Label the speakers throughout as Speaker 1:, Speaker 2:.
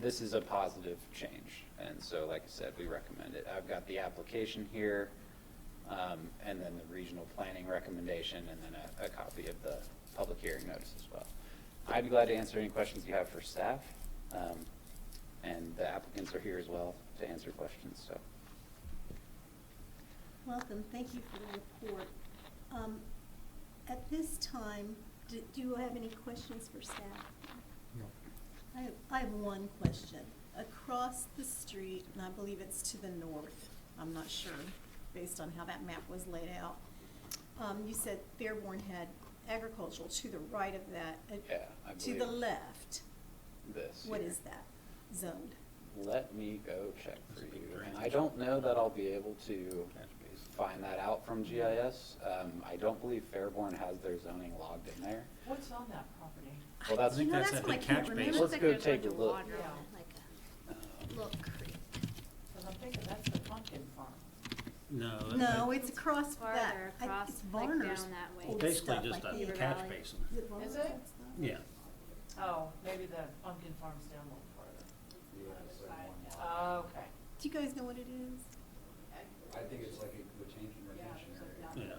Speaker 1: this is a positive change, and so, like I said, we recommend it. I've got the application here, um, and then the regional planning recommendation, and then a, a copy of the public hearing notice as well. I'd be glad to answer any questions you have for staff, um, and the applicants are here as well to answer questions, so.
Speaker 2: Welcome, thank you for the report. Um, At this time, d- do you have any questions for staff? I have, I have one question. Across the street, and I believe it's to the north, I'm not sure, based on how that map was laid out. um, You said Fairborn had agricultural to the right of that. uh,
Speaker 1: Yeah, I
Speaker 2: To the
Speaker 1: believe-
Speaker 2: left,
Speaker 1: This.
Speaker 2: what
Speaker 1: here.
Speaker 2: is that zoned?
Speaker 1: Let me go check for you. And I don't know that I'll be able to find that out from GIS. Um, I don't believe Fairborn has their zoning logged in there.
Speaker 3: What's on that property?
Speaker 1: Well, that's,
Speaker 2: You know,
Speaker 4: that's
Speaker 2: that's
Speaker 4: a
Speaker 2: what I
Speaker 4: big
Speaker 2: can't
Speaker 4: catch
Speaker 2: remember.
Speaker 4: basin.
Speaker 1: Let's go take a look.
Speaker 5: Little creek.
Speaker 3: Because I'm thinking that's the pumpkin farm.
Speaker 4: No. it-
Speaker 2: No,
Speaker 4: it-
Speaker 2: Oh, it's across that,
Speaker 5: Farther
Speaker 2: I-
Speaker 5: across,
Speaker 2: it's
Speaker 5: like,
Speaker 2: Varner's
Speaker 5: down that way.
Speaker 2: old
Speaker 4: Basically
Speaker 2: stuff,
Speaker 4: just
Speaker 2: I
Speaker 4: a
Speaker 2: think.
Speaker 4: catch
Speaker 5: Valley.
Speaker 4: basin.
Speaker 2: Is it Varner's?
Speaker 3: it?
Speaker 2: That's not-
Speaker 4: Yeah.
Speaker 3: Oh, maybe the pumpkin farm's down a little further. Oh, okay.
Speaker 2: Do you guys know what it is?
Speaker 1: I think it's like a change in retention
Speaker 4: Yeah.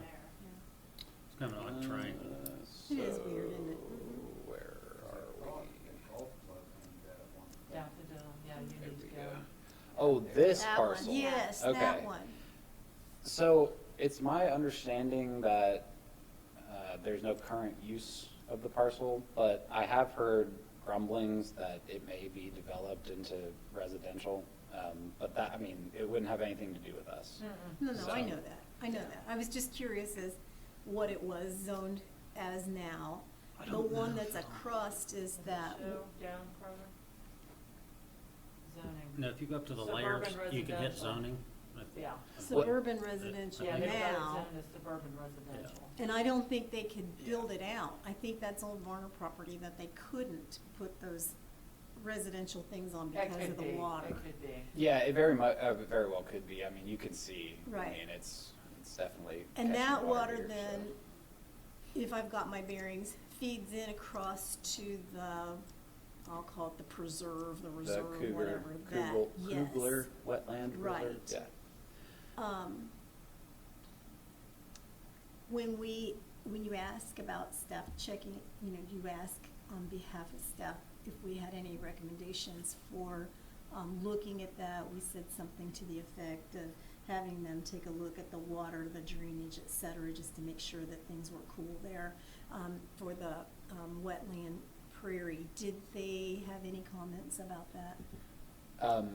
Speaker 4: It's kind of
Speaker 1: Uh,
Speaker 4: like a triangle.
Speaker 2: It is weird, isn't it? Mhm.
Speaker 1: Where are we?
Speaker 3: Down to the, yeah, you
Speaker 1: There
Speaker 3: need to
Speaker 1: we
Speaker 3: go.
Speaker 1: go. Oh, this
Speaker 5: That one.
Speaker 1: parcel.
Speaker 2: Yes, that
Speaker 1: Okay.
Speaker 2: one.
Speaker 1: So it's my understanding that uh, there's no current use of the parcel, but I have heard grumblings that it may be developed into residential. Um, But that, I mean, it wouldn't have anything to do with us.
Speaker 3: Mm-mm.
Speaker 2: No, no, I
Speaker 1: So-
Speaker 2: know that, I know that. I was just curious as what it was zoned as now.
Speaker 4: I
Speaker 2: The
Speaker 4: don't
Speaker 2: one
Speaker 4: know.
Speaker 2: that's across is that,
Speaker 3: So, down further? Zoning.
Speaker 4: No, if you go up to the layers,
Speaker 3: Suburban
Speaker 4: you can hit
Speaker 3: residential.
Speaker 4: zoning.
Speaker 3: Yeah.
Speaker 2: suburban residential
Speaker 3: Yeah, they've got
Speaker 2: now.
Speaker 3: it zoned as suburban residential.
Speaker 2: And I don't think they could build it out. I think that's old Varner property that they couldn't put those residential things on
Speaker 3: It
Speaker 2: because
Speaker 3: could
Speaker 2: of
Speaker 3: be,
Speaker 2: the water.
Speaker 3: it could be.
Speaker 1: Yeah, it very mu, uh, very well could be. I mean, you can see.
Speaker 2: Right.
Speaker 1: I mean, it's, it's definitely.
Speaker 2: And
Speaker 1: catching
Speaker 2: that water
Speaker 1: here, so-
Speaker 2: then, if I've got my bearings, feeds in across to the, I'll call it the preserve, the
Speaker 1: The
Speaker 2: reserve,
Speaker 1: Cougar,
Speaker 2: whatever that,
Speaker 1: Kugel,
Speaker 2: yes.
Speaker 1: Kugler Wetland Reserve,
Speaker 2: Right.
Speaker 1: yeah.
Speaker 2: Um, when we, when you ask about staff checking, you know, you ask on behalf of staff if we had any recommendations for, um, looking at that, we said something to the effect of having them take a look at the water, the drainage, et cetera, just to make sure that things were cool there, um, for the, um, wetland prairie. Did they have any comments about that?
Speaker 1: Um,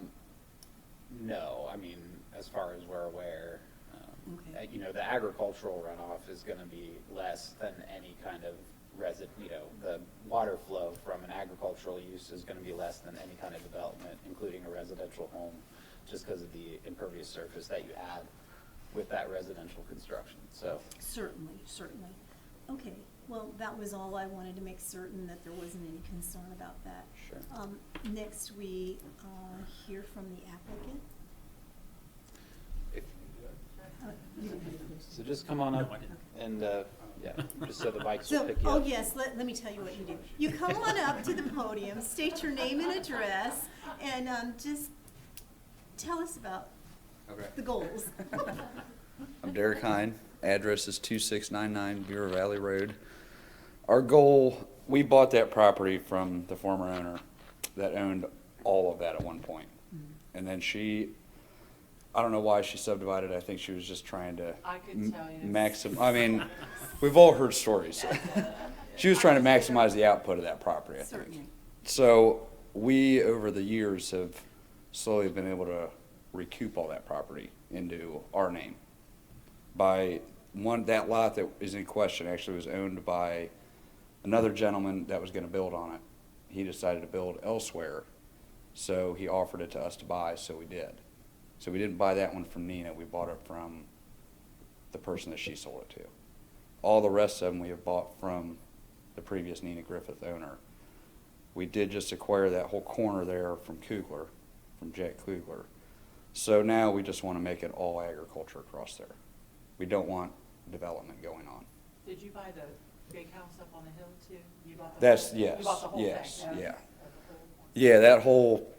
Speaker 1: no, I mean, as far as we're aware, um,
Speaker 2: Okay.
Speaker 1: uh, you know, the agricultural runoff is gonna be less than any kind of resid, you know, the water flow from an agricultural use is gonna be less than any kind of development, including a residential home, just because of the impervious surface that you add with that residential construction, so.
Speaker 2: Certainly, certainly. Okay, well, that was all I wanted to make certain that there wasn't any concern about that.
Speaker 1: Sure.
Speaker 2: Um, next, we, uh, hear from the applicant.
Speaker 1: If-
Speaker 2: Uh, you-
Speaker 1: So just come on
Speaker 4: No,
Speaker 1: up
Speaker 4: I didn't.
Speaker 1: and, uh, yeah, just so the bikes will
Speaker 2: So,
Speaker 1: pick you
Speaker 2: oh
Speaker 1: up.
Speaker 2: yes, let, let me tell you what you do. You come on up to the podium, state your name and address, and, um, just tell us about
Speaker 6: Okay.
Speaker 2: the goals.
Speaker 6: I'm Derek Hine. Address is 2699 Bureau Valley Road. Our goal, we bought that property from the former owner that owned all of that at one point.
Speaker 2: Mm-hmm.
Speaker 6: And then she, I don't know why she subdivided, I think she was just trying to.
Speaker 3: I could
Speaker 6: m-
Speaker 3: tell you.
Speaker 6: Maxim, I mean, we've all heard stories. She was trying to maximize the output of that property, I think.
Speaker 2: Certainly.
Speaker 6: So we, over the years, have slowly been able to recoup all that property into our name. By one, that lot that is in question actually was owned by another gentleman that was gonna build on it. He decided to build elsewhere, so he offered it to us to buy, so we did. So we didn't buy that one from Nina, we bought it from the person that she sold it to. All the rest of them we have bought from the previous Nina Griffith owner. We did just acquire that whole corner there from Kugler, from Jack Kugler. So now we just want to make it all agriculture across there. We don't want development going on.
Speaker 3: Did you buy the big house up on the hill too? You bought the whole-
Speaker 6: That's-
Speaker 3: You bought
Speaker 6: yes,
Speaker 3: the whole thing?
Speaker 6: yes,
Speaker 3: okay.
Speaker 6: yeah.
Speaker 3: That's cool.
Speaker 6: Yeah, that whole